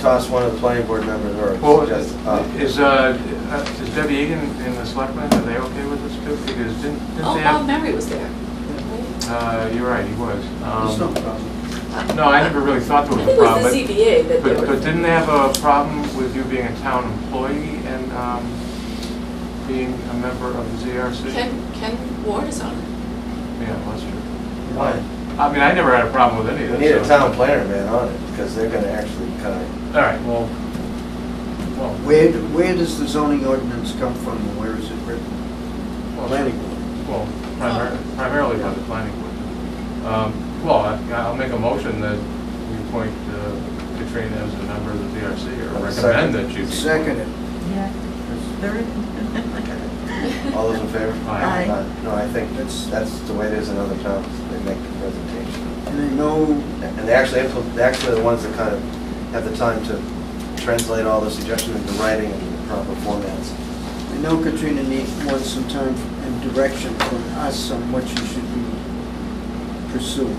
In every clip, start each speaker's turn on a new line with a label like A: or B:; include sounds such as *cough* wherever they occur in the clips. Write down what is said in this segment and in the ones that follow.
A: Toss one of the planning board members
B: Well,
A: or just, uh,
B: is, uh, is Debbie Egan and the selectmen, are they okay with this too? Because didn't, didn't
C: Oh,
B: they have?
C: Bob Mary was there. right?
B: Uh, you're right, he was.
A: there's no
B: Um,
A: problem.
B: No, I never really thought
C: I
B: there was
C: think
B: a
C: it was
B: problem.
C: the ZBA that
B: but-
C: they
B: But, but
C: were,
B: didn't they have a problem with you being a town employee and, um, being a member of the ZRC?
C: Ken, Ken Ward is on it.
B: Yeah, that's true.
A: Why?
B: I mean, I never had a problem with any of
A: You
B: this.
A: need a
B: so-
A: town planner man on it, because they're gonna actually kind of,
B: All right, well, well,
D: Where, d- where does the zoning ordinance come from, and where is it written?
B: well,
D: Planning board.
B: Well, primar-
C: Oh.
B: primarily by the planning board. Um, Well, I- I'll make a motion that we appoint uh, Katrina as a member of the DRC or
A: Second.
B: recommend that she be.
D: Second it.
E: Yeah, *laughs* third.
A: all those in favor?
D: *laughs*
B: Aye.
E: Aye.
A: Uh, No, I think that's, that's the way it is in other towns, they make the presentation.
D: And I know,
A: And they actually, impl- they're actually the ones that kind of have the time to translate all the suggestions into writing and the proper formats.
D: I know Katrina needs, wants some time and direction from us on what she should be pursuing.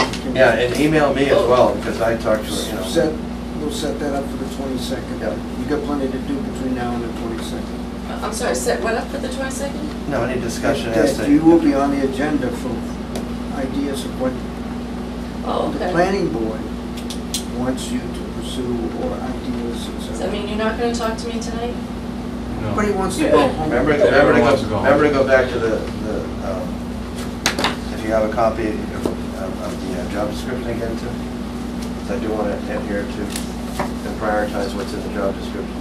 D: Can we-
A: Yeah, and email me
D: Oh.
A: as well, because I talked to her, you know.
D: Set, we'll set that up for the twenty-second.
A: Yeah.
D: You got plenty to do between now and the twenty-second.
C: Uh, I'm sorry, set what up for the 22nd?
A: No, any discussion as to.
D: You will be on the agenda for ideas of what
C: Oh,
D: the
C: okay.
D: planning board wants you to pursue or ideas and so
C: Does that mean you're not going to talk to me tonight?
B: No.
D: Everybody wants to go home.
A: Remember, remember
B: Yeah,
A: to
B: everyone wants to
A: go,
B: go home.
A: remember to go back to the, the, um, if you have a copy of, of- of the uh, job description again too. 'Cause I do want to adhere to and prioritize what's in the job description.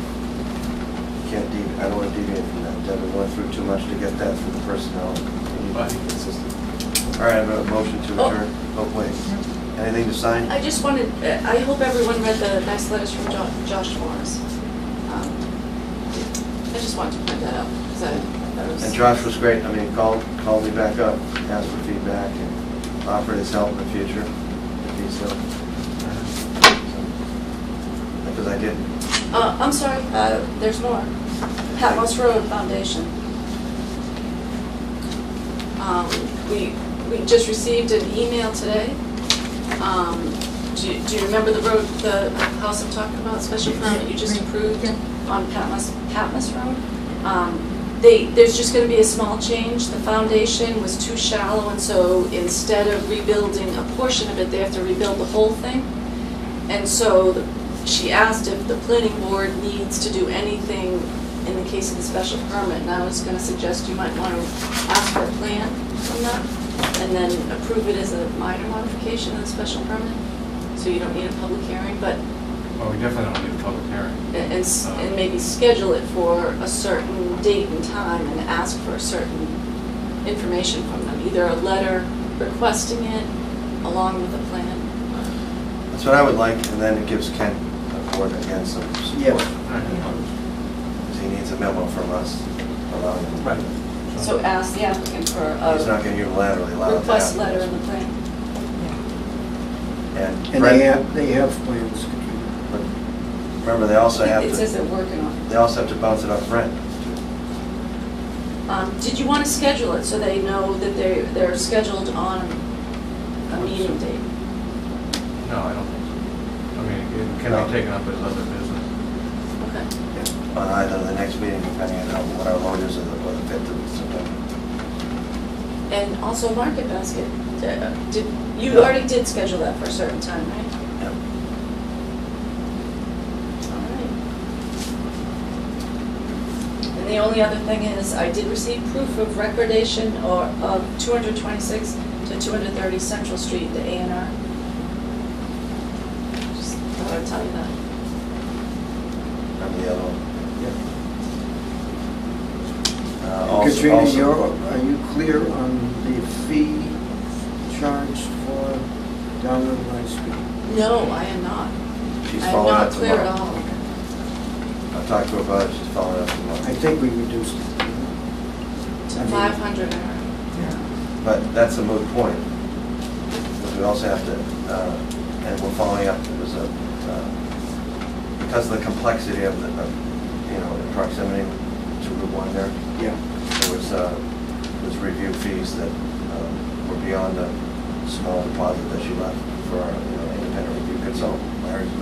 A: Can't deviate, I don't want to deviate from that, Devin went through too much to get that through the personnel. We need to be consistent. All right, I have a motion to
C: Oh.
A: adjourn, oh wait, anything to sign?
C: I just wanted, uh, I hope everyone read the nice letters from Jo- Josh Morris. Um, I just wanted to point that out, because I thought it was...
A: And Josh was great, I mean, called, called me back up, asked for feedback, and offered his help in the future, if he's so. Because I did,
C: Uh, I'm sorry, uh, there's more. Patmos Road Foundation. Um, we, we just received an email today. Um, do, you- do you remember the road, the house I'm talking about, special permit you just approved on Patmos, Patmos Road? Um, they, there's just gonna be a small change, the foundation was too shallow, and so instead of rebuilding a portion of it, they have to rebuild the whole thing. And so the- she asked if the planning board needs to do anything in the case of the special permit. And I was gonna suggest you might want to ask for a plan from them and then approve it as a minor modification of the special permit. So you don't need a public hearing, but,
B: Well, we definitely don't need a public hearing. Uh,
C: and, and s- and maybe schedule it for a certain date and time and ask for certain information from them. Either a letter requesting it along with a plan.
A: that's what I would like, and then it gives Ken a board again some support.
D: Yeah.
A: Because he needs a memo from us allowing him.
B: Right.
C: So uh- ask the applicant for a.
A: He's not gonna unilaterally allow that.
C: request letter in the plan.
A: And
D: And they
A: Brent,
D: have, they have plans, Katrina.
A: remember, they also have
C: It says
A: to,
C: they're working on
A: they also have to bounce it off Brent.
C: it. Um, Did you want to schedule it so they know that they, they're scheduled on a meeting date?
B: No, I don't think so. I mean, it can
A: No.
B: be taken up as other business.
C: Okay.
A: on either the next meeting, depending on how- what our lawyers are, or the fifth of September.
C: And also Market Basket, uh, did, you
A: Yeah.
C: already did schedule that for a certain time, right?
A: Yep.
C: All right. And the only other thing is, I did receive proof of recordation or of 226 to 230 Central Street, the A and R. Just thought I'd tell you that.
A: Remember the other one?
D: Yeah.
A: Uh,
D: And
A: also-
D: Katrina,
A: also-
D: you're, are you clear on the fee charged for download license?
C: No, I am not.
A: She's
C: I am
A: following
C: not
A: up
C: clear at
A: tomorrow.
C: all.
A: I talked to her about it, she's following up
D: I
A: tomorrow.
D: think we reduced it.
C: To
D: I mean-
C: 500 hour.
A: But that's a moot point. Because we also have to, uh, and we're following up, it was a, uh, because of the complexity of the, of, you know, in proximity to Route 1 there,
D: Yeah.
A: there was, uh, was review fees that um, were beyond the small deposit that she left for our, you know, independent review consultant, Larry's